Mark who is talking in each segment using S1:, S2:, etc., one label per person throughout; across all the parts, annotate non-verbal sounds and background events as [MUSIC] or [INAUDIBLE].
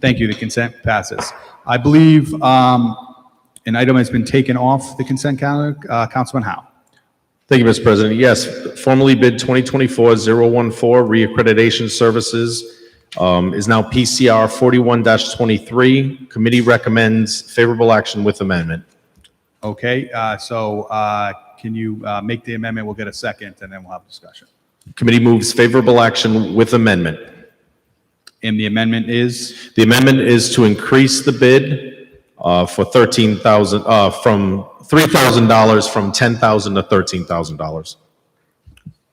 S1: Thank you, the consent passes. I believe um, an item has been taken off the consent calendar. Uh, Councilman Howe?
S2: Thank you, Mr. President. Yes, formerly bid 2024-014 reaccreditation services um, is now PCR 41-23. Committee recommends favorable action with amendment.
S1: Okay, uh, so uh, can you uh, make the amendment? We'll get a second, and then we'll have discussion.
S2: Committee moves favorable action with amendment.
S1: And the amendment is,
S2: The amendment is to increase the bid uh, for 13,000, uh, from $3,000 from 10000 to $13,000.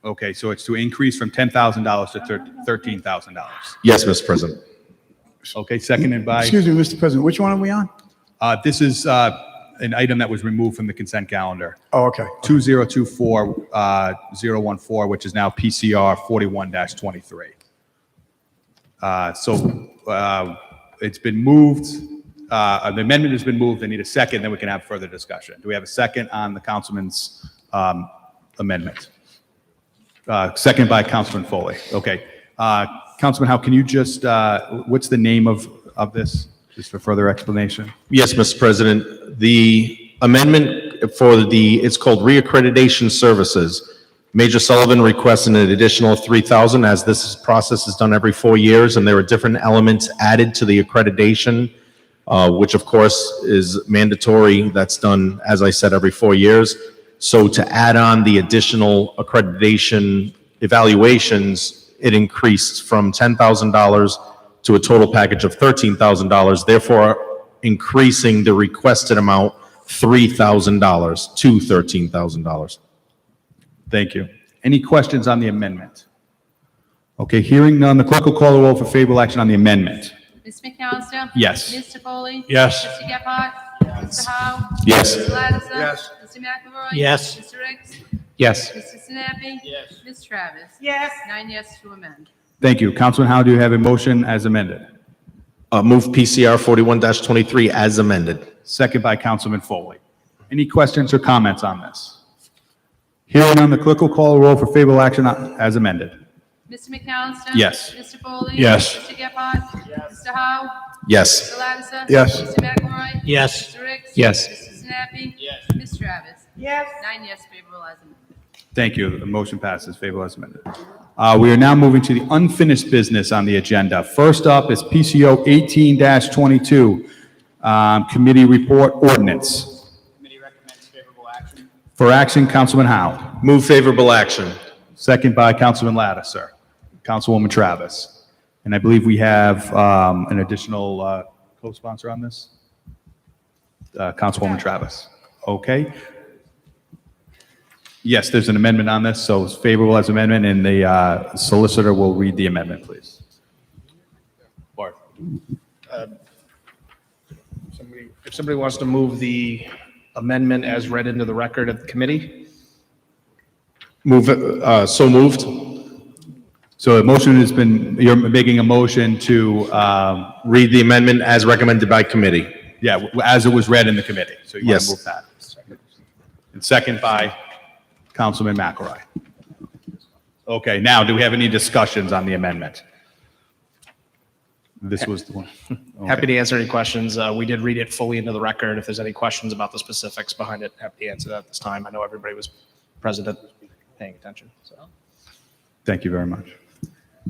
S1: okay, so it's to increase from $10,000 to thir- $13,000.
S2: Yes, Mr. President.
S1: Okay, seconded by,
S3: Excuse me, Mr. President, which one are we on?
S1: uh, this is uh, an item that was removed from the consent calendar,
S3: Oh, okay.
S1: uh, 2024-014, which is now PCR 41-23. Uh, So uh, it's been moved, uh, the amendment has been moved, I need a second, then we can have further discussion. Do we have a second on the councilman's um, amendment? Uh, Second by Councilman Foley, okay. Uh, Councilman Howe, can you just, uh, what's the name of, of this, just for further explanation?
S2: Yes, Mr. President. The amendment for the, it's called reaccreditation services. Major Sullivan requests an additional 3,000 as this is- process is done every four years and there are different elements added to the accreditation, uh, which of course is mandatory. That's done, as I said, every four years. So to add on the additional accreditation evaluations, it increased from $10,000 to a total package of $13,000, therefore increasing the requested amount $3,000 to $13,000.
S1: Thank you. Any questions on the amendment? Okay, hearing none, the clerk will call the roll for favorable action on the amendment.
S4: Ms. McAllister?
S1: Yes.
S4: Mr. Foley?
S2: Yes.
S4: Mr. Gephardt? Mr. Howe?
S2: Yes.
S4: Mr. Lattiser? Yes. Mr. McElroy?
S5: Yes.
S4: Mr. Ricks?
S1: Yes.
S4: Mr. Sinapi? Yes. Ms. Travis? Yes. Nine yes to amend.
S1: Thank you. Councilman Howe, do you have a motion as amended?
S2: Uh, Move PCR 41-23 as amended.
S1: Second by Councilman Foley. Any questions or comments on this? Hearing none, the clerk will call the roll for favorable action on- as amended.
S4: Mr. McAllister?
S1: Yes.
S4: Mr. Foley?
S1: Yes.
S4: Mr. Gephardt? Yes. Mr. Howe?
S2: Yes.
S4: Mr. Lattiser?
S3: Yes.
S4: Mr. McElroy?
S5: Yes.
S4: Mr. Ricks?
S1: Yes.
S4: Mr. Sinapi? Yes. Ms. Travis? Yes. Nine yes favorable as amended.
S1: Thank you. The motion passes favorable as amended. Uh, We are now moving to the unfinished business on the agenda. First up is PCO 18-22, um, Committee Report Ordinance.
S6: Committee recommends favorable action.
S1: For action, Councilman Howe.
S2: Move favorable action.
S1: Second by Councilman Lattiser. Councilwoman Travis. And I believe we have um, an additional uh, co-sponsor on this? Uh, Councilwoman Travis. Okay. Yes, there's an amendment on this, so it's favorable as amendment, and the uh, solicitor will read the amendment, please. Bart.
S6: Somebody- If somebody wants to move the amendment as read into the record of the committee,
S2: Move, uh, so moved?
S1: So a motion has been, you're making a motion to, um,
S2: Read the amendment as recommended by committee.
S1: yeah, w- as it was read in the committee. So you want
S2: Yes.
S1: to move that. And second by Councilman McElroy. Okay, now, do we have any discussions on the amendment? This was the
S2: [LAUGHS]
S1: one.
S6: happy to answer any questions. Uh, We did read it fully into the record. If there's any questions about the specifics behind it, happy to answer that at this time. I know everybody was president paying attention, so.
S1: Thank you very much.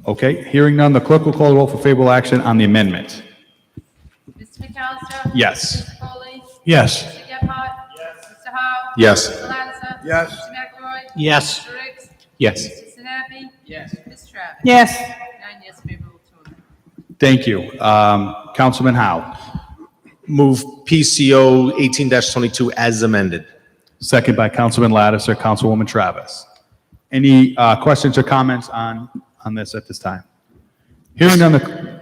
S1: Okay, hearing none, the clerk will call the roll for favorable action on the amendment.
S4: Mr. McAllister?
S1: Yes.
S4: Mr. Foley?
S1: Yes.
S4: Mr. Gephardt? Yes. Mr. Howe?
S2: Yes.
S4: Mr. Lattiser? Yes. Mr. McElroy?
S5: Yes.
S4: Mr. Ricks?
S2: Yes.
S4: Mr. Sinapi? Yes. Ms. Travis?
S7: yes.
S4: Nine yes favorable to amendment.
S1: Thank you. Um, Councilman Howe,
S2: Move PCO 18-22 as amended.
S1: second by Councilman Lattiser, Councilwoman Travis. Any uh, questions or comments on, on this at this time? Hearing none, the,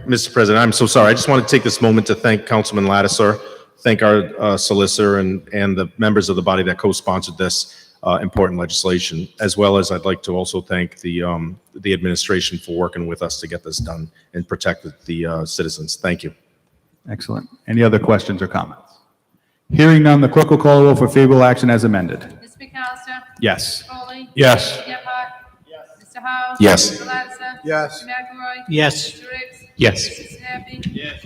S2: Mr. President, I'm so sorry. I just want to take this moment to thank Councilman Lattiser, thank our uh, solicitor and, and the members of the body that co-sponsored this uh, important legislation, as well as I'd like to also thank the, um, the administration for working with us to get this done and protect the uh, citizens. Thank you.
S1: Excellent. Any other questions or comments? Hearing none, the clerk will call the roll for favorable action as amended.
S4: Ms. McAllister?
S1: Yes.
S4: Mr. Foley?
S1: Yes.
S4: Mr. Gephardt? Yes. Mr. Howe?
S2: Yes.
S4: Mr. Lattiser?
S3: Yes.
S4: Mr. McElroy?
S5: Yes.
S4: Mr. Ricks?
S2: Yes.
S4: Mr. Sinapi? Yes.